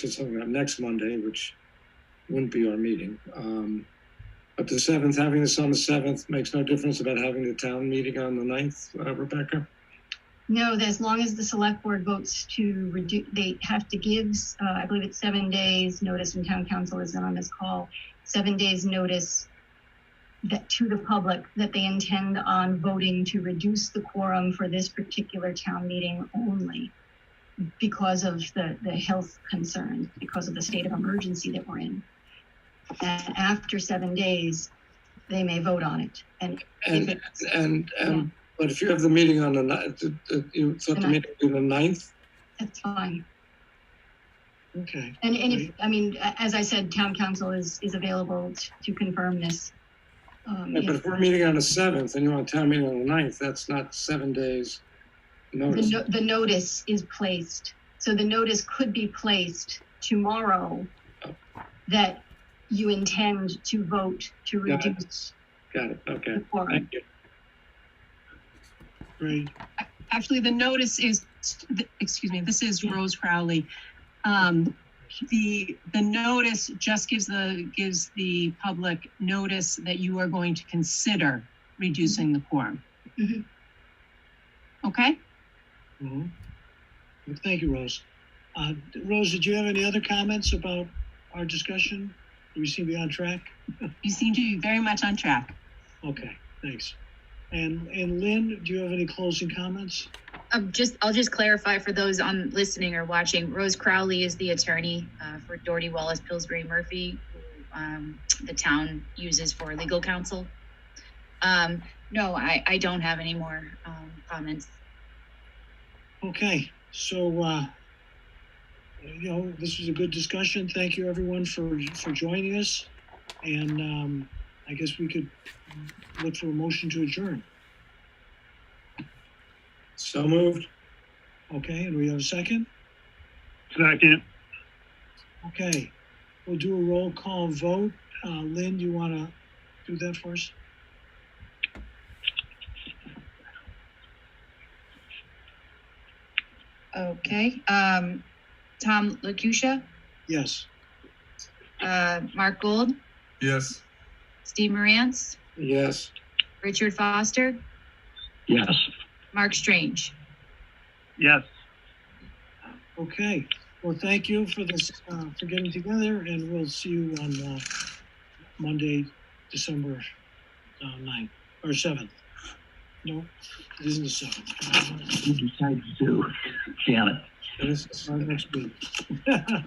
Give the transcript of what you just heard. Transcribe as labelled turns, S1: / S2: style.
S1: set something up next Monday, which wouldn't be our meeting. Um, But the seventh, having this on the seventh makes no difference about having the town meeting on the ninth, uh, Rebecca?
S2: No, that as long as the select board votes to reduce, they have to give, uh, I believe it's seven days notice, and town council isn't on this call, seven days notice that to the public that they intend on voting to reduce the quorum for this particular town meeting only because of the, the health concerns, because of the state of emergency that we're in. And after seven days, they may vote on it. And if
S1: And,
S2: it's,
S1: and, and, but if you have the meeting on the ninth, you thought the meeting would be the ninth?
S2: that's fine.
S1: Okay.
S2: And, and if, I mean, a- as I said, town council is, is available t- to confirm this. Um,
S1: But if
S2: if
S1: we're meeting on the seventh and you want a town meeting on the ninth, that's not seven days
S2: The,
S1: notice.
S2: no- the notice is placed, so the notice could be placed tomorrow that you intend to vote to
S1: Got it.
S2: reduce
S1: Got it, okay,
S2: the quorum.
S1: thank you. Great.
S3: actually, the notice is, excuse me, this is Rose Crowley. Um, the, the notice just gives the, gives the public notice that you are going to consider reducing the quorum.
S2: Mhm.
S3: Okay?
S4: Mhm. Well, Mm-hmm. Thank you, Rose. Uh, Rose, did you have any other comments about our discussion? Do we seem to be on track?
S3: You seem to be very much on track.
S4: Okay, thanks. And, and Lynn, do you have any closing comments?
S5: Um, just, I'll just clarify for those on listening or watching, Rose Crowley is the attorney, uh, for Doherty Wallace Pillsbury Murphy, who, um, the town uses for legal counsel. Um, no, I, I don't have any more, um, comments.
S4: Okay, so, uh, you know, this was a good discussion. Thank you, everyone, for, for joining us. And, um, I guess we could look for a motion to adjourn.
S1: So moved.
S4: Okay, and we have a second?
S6: Second,
S4: Okay, we'll do a roll call vote. Uh, Lynn, do you want to do that for us?
S5: Okay, um, Tom Lakusha,
S4: Yes.
S5: uh, Mark Gold,
S7: Yes.
S5: Steve Morantz,
S1: Yes,
S5: Richard Foster,
S6: yes.
S5: Mark Strange.
S6: Yes.
S4: Okay, well, thank you for this, uh, for getting together, and we'll see you on, uh, Monday, December, uh, ninth, or seventh. No, it isn't the seventh, uh,
S6: You decide to do, Janet.
S1: it is-
S4: our next meeting.